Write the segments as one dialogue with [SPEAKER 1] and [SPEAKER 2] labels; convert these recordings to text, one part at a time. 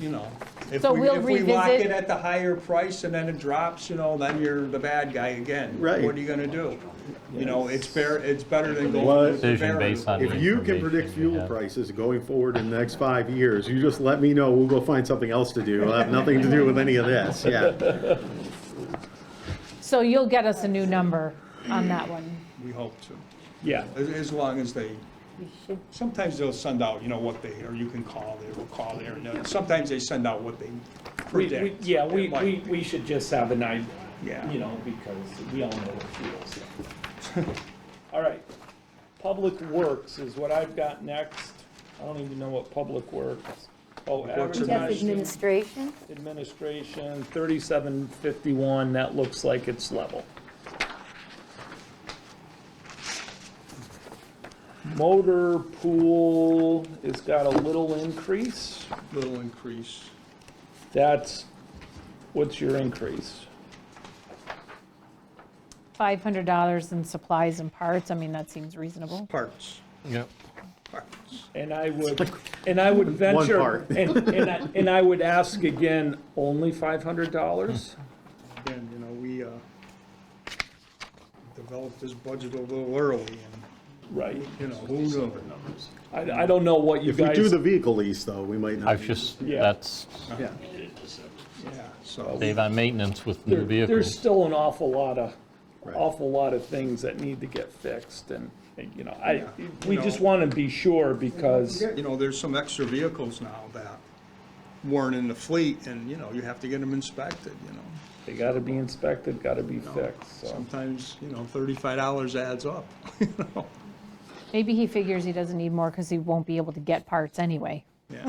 [SPEAKER 1] you know. if
[SPEAKER 2] So
[SPEAKER 1] we-
[SPEAKER 2] we'll
[SPEAKER 1] If we lock
[SPEAKER 2] revisit-
[SPEAKER 1] it at the higher price and then it drops, you know, then you're the bad guy again.
[SPEAKER 3] Right.
[SPEAKER 1] What are you gonna do? You know, it's fair, it's better than
[SPEAKER 3] Well,
[SPEAKER 1] going with the
[SPEAKER 4] Decision based on-
[SPEAKER 1] variable.
[SPEAKER 3] If you can predict fuel prices going forward in the next five years, you just let me know, we'll go find something else to do. It'll have nothing to do with any of this, yeah.
[SPEAKER 2] So you'll get us a new number on that one.
[SPEAKER 1] We hope to,
[SPEAKER 5] Yeah,
[SPEAKER 1] as, as long as they, sometimes they'll send out, you know, what they, or you can call, they will call there, and then sometimes they send out what they
[SPEAKER 5] we, we,
[SPEAKER 1] predict.
[SPEAKER 5] yeah, we,
[SPEAKER 1] It might
[SPEAKER 5] we,
[SPEAKER 1] be.
[SPEAKER 5] we should just have an idea,
[SPEAKER 1] Yeah.
[SPEAKER 5] you know, because we all know what fuels. All right, Public Works is what I've got next. I don't even know what Public Works. Oh,
[SPEAKER 1] Works and
[SPEAKER 6] Jeff
[SPEAKER 5] advertising,
[SPEAKER 6] administration,
[SPEAKER 5] administration, thirty-seven fifty-one, that looks like it's level. Motor pool has got a little increase.
[SPEAKER 1] Little increase.
[SPEAKER 5] That's, what's your increase?
[SPEAKER 2] $500 in supplies and parts, I mean, that seems reasonable.
[SPEAKER 1] Parts,
[SPEAKER 4] Yep.
[SPEAKER 1] parts.
[SPEAKER 5] And I would, and I would venture,
[SPEAKER 3] part.
[SPEAKER 5] and, and I, and I would ask again, only five hundred dollars?
[SPEAKER 1] Again, you know, we, uh, developed this budget a little early and,
[SPEAKER 5] Right.
[SPEAKER 1] you know, who knew?
[SPEAKER 5] I, I don't know what you
[SPEAKER 3] If we
[SPEAKER 5] guys.
[SPEAKER 3] do the vehicle lease though, we might not.
[SPEAKER 4] I've just,
[SPEAKER 5] Yeah.
[SPEAKER 4] that's,
[SPEAKER 3] Yeah,
[SPEAKER 1] Yeah, so.
[SPEAKER 4] save on maintenance with
[SPEAKER 5] there-
[SPEAKER 4] new
[SPEAKER 5] There's
[SPEAKER 4] vehicles.
[SPEAKER 5] still an awful lot of,
[SPEAKER 3] Right.
[SPEAKER 5] awful lot of things that need to get fixed and, and, you know, I,
[SPEAKER 1] Yeah.
[SPEAKER 5] we
[SPEAKER 1] No.
[SPEAKER 5] just want to be sure because,
[SPEAKER 1] You know, there's some extra vehicles now that weren't in the fleet, and, you know, you have to get them inspected, you know.
[SPEAKER 5] they gotta be inspected, gotta be fixed, so.
[SPEAKER 1] Sometimes, you know, thirty-five dollars adds up, you know?
[SPEAKER 2] Maybe he figures he doesn't need more because he won't be able to get parts anyway.
[SPEAKER 1] Yeah,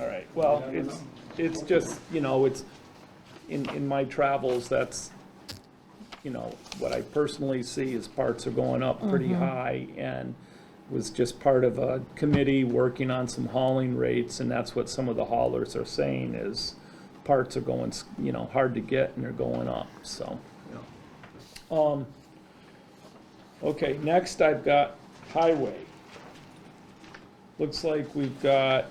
[SPEAKER 5] All right, well, it's, it's just, you know, it's, in, in my travels, that's, you know, what I personally see is parts are going up pretty high, and was just part of a committee working on some hauling rates, and that's what some of the haulers are saying is parts are going, s- you know, hard to get and they're going up, so. Um,
[SPEAKER 1] Yeah.
[SPEAKER 5] Okay, next I've got highway. Looks like we've got,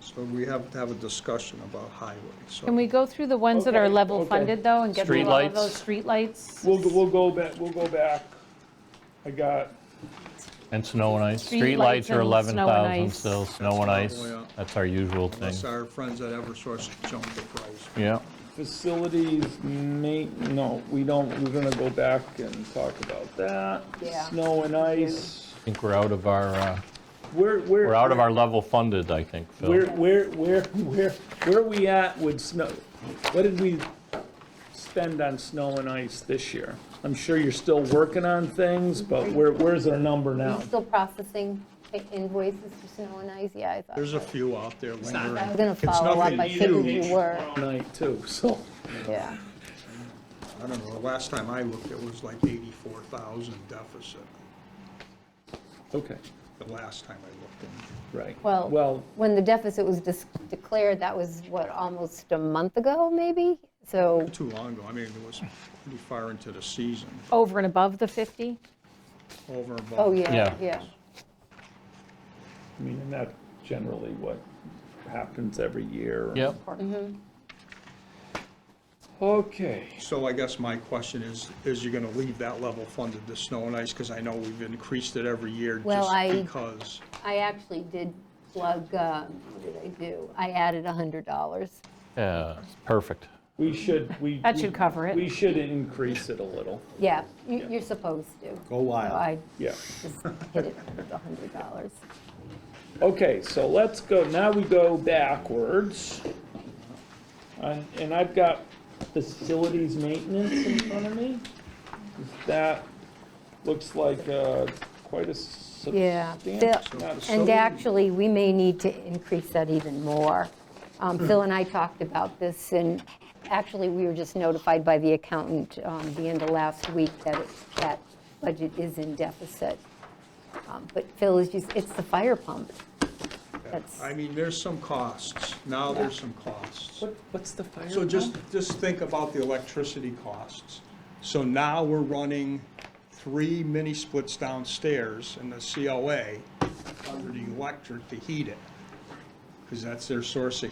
[SPEAKER 1] So we have to have a discussion about highway, so.
[SPEAKER 2] Can we go through the ones that are
[SPEAKER 5] Okay,
[SPEAKER 2] level
[SPEAKER 5] okay.
[SPEAKER 2] funded, though, and get through all of
[SPEAKER 4] Streetlights.
[SPEAKER 2] those streetlights?
[SPEAKER 5] we'll, go- we'll go back, we'll go back. I got
[SPEAKER 4] And snow and ice.
[SPEAKER 2] Street lights
[SPEAKER 4] Streetlights are
[SPEAKER 2] and snow and
[SPEAKER 4] 11,000
[SPEAKER 2] ice.
[SPEAKER 4] still, snow and ice,
[SPEAKER 1] Oh, yeah.
[SPEAKER 4] that's our usual thing.
[SPEAKER 1] Unless our friends at Eversource jump the price.
[SPEAKER 4] Yeah.
[SPEAKER 5] Facilities ma, no, we don't, we're gonna go back and talk about that.
[SPEAKER 2] Yeah.
[SPEAKER 5] Snow and ice,
[SPEAKER 4] I think we're out of our, uh,
[SPEAKER 5] where, where?
[SPEAKER 4] we're out of our level funded, I think,
[SPEAKER 5] Where,
[SPEAKER 4] Phil.
[SPEAKER 5] where, where, where, where are we at with snow? What did we spend on snow and ice this year? I'm sure you're still working on things, but where, where's our number now?
[SPEAKER 6] you still processing i- invoices for snow and ice, yeah, I thought.
[SPEAKER 1] There's a few out there
[SPEAKER 6] I was
[SPEAKER 1] lingering.
[SPEAKER 6] gonna
[SPEAKER 1] It's
[SPEAKER 6] follow up,
[SPEAKER 1] nothing
[SPEAKER 6] I figured
[SPEAKER 1] huge.
[SPEAKER 6] you were,
[SPEAKER 5] Night too, so,
[SPEAKER 6] yeah.
[SPEAKER 1] I don't know, the last time I looked, it was like eighty-four thousand deficit,
[SPEAKER 5] okay,
[SPEAKER 1] the last time I looked in.
[SPEAKER 5] right.
[SPEAKER 6] Well,
[SPEAKER 5] Well,
[SPEAKER 6] when the deficit was dis- declared, that was, what, almost a month ago, maybe? So,
[SPEAKER 1] Too long ago, I mean, it was pretty far into the season,
[SPEAKER 2] Over and above the 50?
[SPEAKER 1] over and above.
[SPEAKER 6] oh, yeah,
[SPEAKER 4] Yeah.
[SPEAKER 6] yeah.
[SPEAKER 5] I mean, and that's generally what happens every year.
[SPEAKER 4] Yep,
[SPEAKER 5] Okay.
[SPEAKER 1] So I guess my question is, is you're gonna leave that level funded to snow and ice? Because I know we've increased it every year
[SPEAKER 6] Well,
[SPEAKER 1] just
[SPEAKER 6] I-
[SPEAKER 1] because.
[SPEAKER 6] I actually did plug, um, what did I do? I added $100.
[SPEAKER 4] yeah, perfect.
[SPEAKER 5] We should, we.
[SPEAKER 2] That should cover it.
[SPEAKER 5] We should increase it a little,
[SPEAKER 6] Yeah, you- you're supposed to.
[SPEAKER 3] Go wild.
[SPEAKER 6] So I
[SPEAKER 5] yeah.
[SPEAKER 6] just hit it with $100.
[SPEAKER 5] Okay, so let's go, now we go backwards. And, and I've got facilities maintenance in front of me. That looks like, uh, quite a
[SPEAKER 6] Yeah,
[SPEAKER 5] substantial.
[SPEAKER 6] Phil- and actually, we may need to increase that even more. Um, Phil and I talked about this, and actually, we were just notified by the accountant um, the end of last week that it- that budget is in deficit. Um, But Phil is just, it's the fire pump. That's,
[SPEAKER 1] I mean, there's some costs. Now there's some costs.
[SPEAKER 5] What, what's the fire?
[SPEAKER 1] So just, just think about the electricity costs. So now we're running three mini splits downstairs in the COA under the electric to heat it. because that's their source of